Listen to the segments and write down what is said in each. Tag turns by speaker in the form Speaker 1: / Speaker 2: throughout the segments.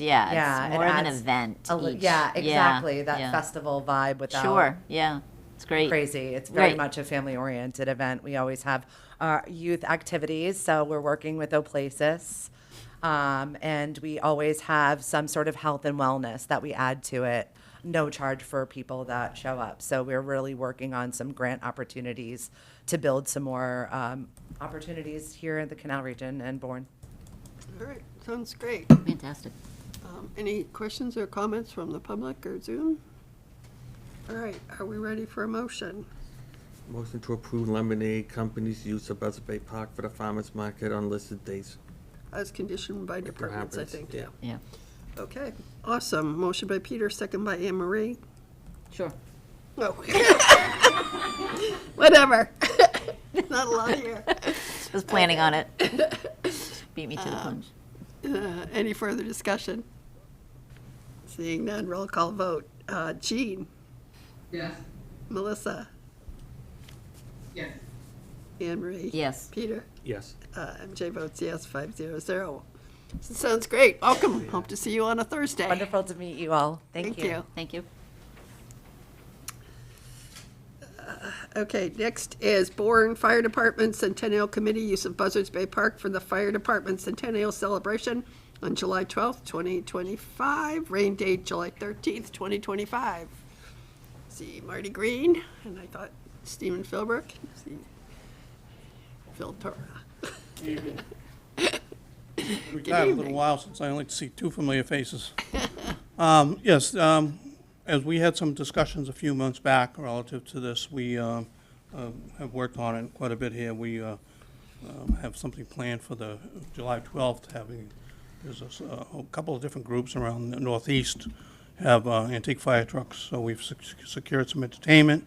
Speaker 1: Yeah,
Speaker 2: Yeah,
Speaker 1: it's
Speaker 2: it
Speaker 1: more of an
Speaker 2: adds
Speaker 1: event.
Speaker 2: A li-
Speaker 1: each.
Speaker 2: Yeah, exactly. That
Speaker 1: yeah.
Speaker 2: festival vibe without
Speaker 1: Sure. Yeah, it's great.
Speaker 2: crazy. It's very
Speaker 1: Right.
Speaker 2: much a family oriented event. We always have our youth activities. So we're working with Oplasis. Um, and we always have some sort of health and wellness that we add to it. No charge for people that show up. So we're really working on some grant opportunities to build some more um, opportunities here in the Canal Region and Bourne.
Speaker 3: All right, sounds great.
Speaker 1: Fantastic.
Speaker 3: Um, Any questions or comments from the public or Zoom? All right, are we ready for a motion?
Speaker 4: Motion to approve lemonade company's use of Buzzard Bay Park for the farmer's market on listed dates.
Speaker 3: As conditioned by
Speaker 4: If it
Speaker 3: departments, I
Speaker 4: happens,
Speaker 3: think.
Speaker 4: yeah.
Speaker 1: Yeah.
Speaker 3: Okay, awesome. Motion by Peter, second by Anne Marie.
Speaker 1: Sure.
Speaker 3: Oh. Whatever. Not a lot here.
Speaker 1: I was planning on it. Beat me to the punch.
Speaker 3: Uh, Any further discussion? Seeing none, roll call vote. Uh, Jean,
Speaker 5: Yes.
Speaker 3: Melissa,
Speaker 5: Yes.
Speaker 3: Anne Marie.
Speaker 1: Yes.
Speaker 3: Peter.
Speaker 4: Yes.
Speaker 3: Uh, MJ votes yes, five zero zero. Sounds great. Welcome. Hope to see you on a
Speaker 1: Eh.
Speaker 3: Thursday.
Speaker 2: Wonderful to meet you all. Thank,
Speaker 3: Thank you.
Speaker 1: Thank you.
Speaker 3: Okay, next is Bourne Fire Department Centennial Committee use of Buzzards Bay Park for the Fire Department Centennial Celebration on July twelfth, twenty twenty-five, rain date July thirteenth, twenty twenty-five. See Marty Green, and I thought Stephen Philbrook, see Phil Torra.
Speaker 6: retired a little
Speaker 3: evening.
Speaker 6: while since I only see two familiar faces. Um, Yes, um, as we had some discussions a few months back relative to this, we um, um, have worked on it quite a bit here. We uh, um, have something planned for the July 12th, having, there's a s- a couple of different groups around the Northeast have uh, antique fire trucks, so we've sec- secured some entertainment.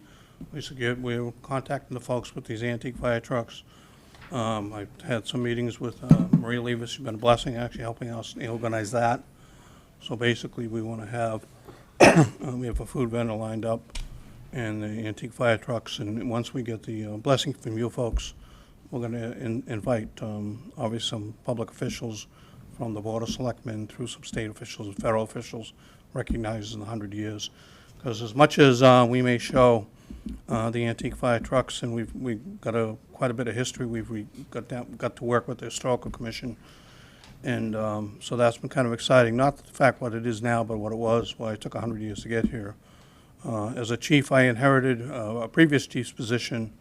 Speaker 6: We secured, we're contacting the folks with these antique fire trucks. Um, I've had some meetings with uh, Maria Levis, she's been a blessing, actually helping us organize that. So basically, we want to have, uh, we have a food vendor lined up and the antique fire trucks, and once we get the uh, blessing from you folks, we're going to invite, um, obviously, some public officials from the Board of Selectmen through some state officials and federal officials recognizing the 100 years. Because as much as uh, we may show uh, the antique fire trucks, and we've, we've got a, quite a bit of history, we've, we got down, got to work with the Historical Commission, and um, so that's been kind of exciting, not the fact what it is now, but what it was, why it took 100 years to get here. Uh, As a chief, I inherited uh, a previous chief's position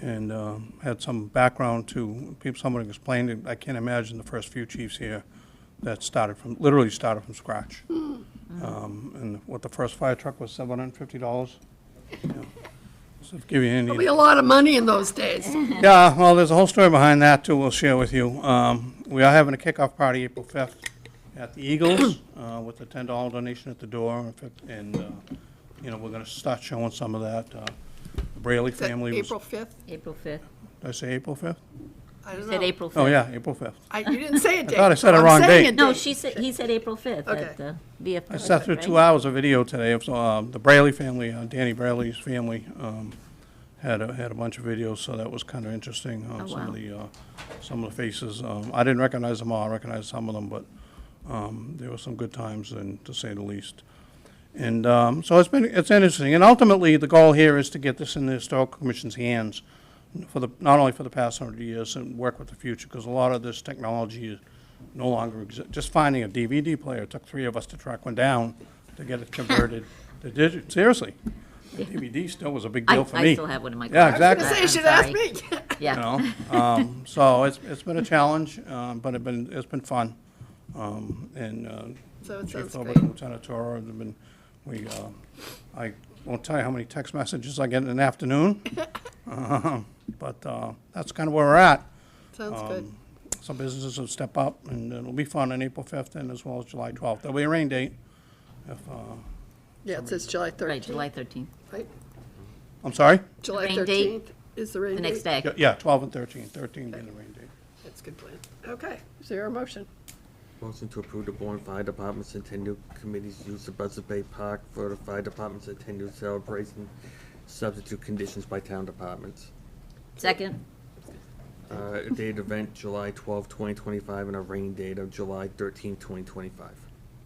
Speaker 6: and um, had some background to, people. someone explained it, I can't imagine the first few chiefs here that started from, literally started from scratch. Um, And what the first fire truck was, $750? Yeah. So to give you any.
Speaker 3: Probably a lot of money in those days.
Speaker 6: Yeah, well, there's a whole story behind that too. We'll share with you. Um, we are having a kickoff party April 5th at the Eagles uh, with a $10 donation at the door, In fact, and uh, you know we're going to start showing some of that. Uh, the Braley
Speaker 3: Is that
Speaker 6: family. was-
Speaker 3: April fifth?
Speaker 1: April 5th.
Speaker 6: did I say April 5th?
Speaker 3: I don't know.
Speaker 1: Said April 5th.
Speaker 6: Oh yeah, April 5th.
Speaker 3: I, you didn't say a date.
Speaker 6: thought I said a
Speaker 3: I'm
Speaker 6: wrong
Speaker 3: saying
Speaker 6: date.
Speaker 3: a
Speaker 1: No, she said, he said April 5th at
Speaker 3: Okay.
Speaker 1: the VFW.
Speaker 6: I sat through two hours of video today of um, the Braley family, uh, Danny Braley's family, um, had a, had a bunch of videos, so that was kind of interesting. um,
Speaker 1: Oh,
Speaker 6: Some
Speaker 1: wow.
Speaker 6: of the, uh, some of the faces, um, I didn't recognize them all, I recognized some of them, but um, there were some good times, and to say the least. And um, so it's been, it's interesting, and ultimately, the goal here is to get this in the Historical Commission's hands for the, not only for the past hundred years, and work with the future, because a lot of this technology is no longer exist. Just finding a DVD player took three of us to track one down to get it converted to digital, seriously. The DVD still was a big
Speaker 1: I-
Speaker 6: deal for
Speaker 1: I
Speaker 6: me.
Speaker 1: still have one in my
Speaker 6: Yeah,
Speaker 1: car. I was
Speaker 6: exactly
Speaker 1: gonna
Speaker 3: Say
Speaker 1: I'm
Speaker 3: you should ask
Speaker 1: sorry.
Speaker 3: me.
Speaker 1: Yeah.
Speaker 6: you know. Um, so it's, it's been a challenge, um, but it's been, it's been fun. Um, and, uh,
Speaker 3: So it
Speaker 6: Chief
Speaker 3: sounds
Speaker 6: Philbrook
Speaker 3: great.
Speaker 6: and Lieutenant Toro have been, we, uh, I won't tell you how many text messages I get in an afternoon. Um, But, uh, that's kind of where we're at.
Speaker 3: Sounds good.
Speaker 6: Um, Some businesses will step up and it'll be fun on April fifth and as well as July twelfth. There'll be a rain date. If, uh,
Speaker 3: Yeah, it says July
Speaker 1: Right,
Speaker 3: 13th.
Speaker 1: July 13th,
Speaker 3: right?
Speaker 6: I'm sorry?
Speaker 3: July
Speaker 1: Rain date.
Speaker 3: 13th is the rain
Speaker 1: the
Speaker 3: date.
Speaker 1: next day.
Speaker 6: Yeah, Yeah, twelve and thirteen. Thirteen being the rain date.
Speaker 3: That's a good plan. Okay, is there a motion?
Speaker 4: Motion to approve the Bourne Fire Department Centennial Committee's use of Buzzard Bay Park for the fire department's centennial celebration, substitute conditions by town departments.
Speaker 1: Second?
Speaker 4: Uh, date event July twelfth, twenty twenty-five, and a rain date of July thirteenth, twenty twenty-five.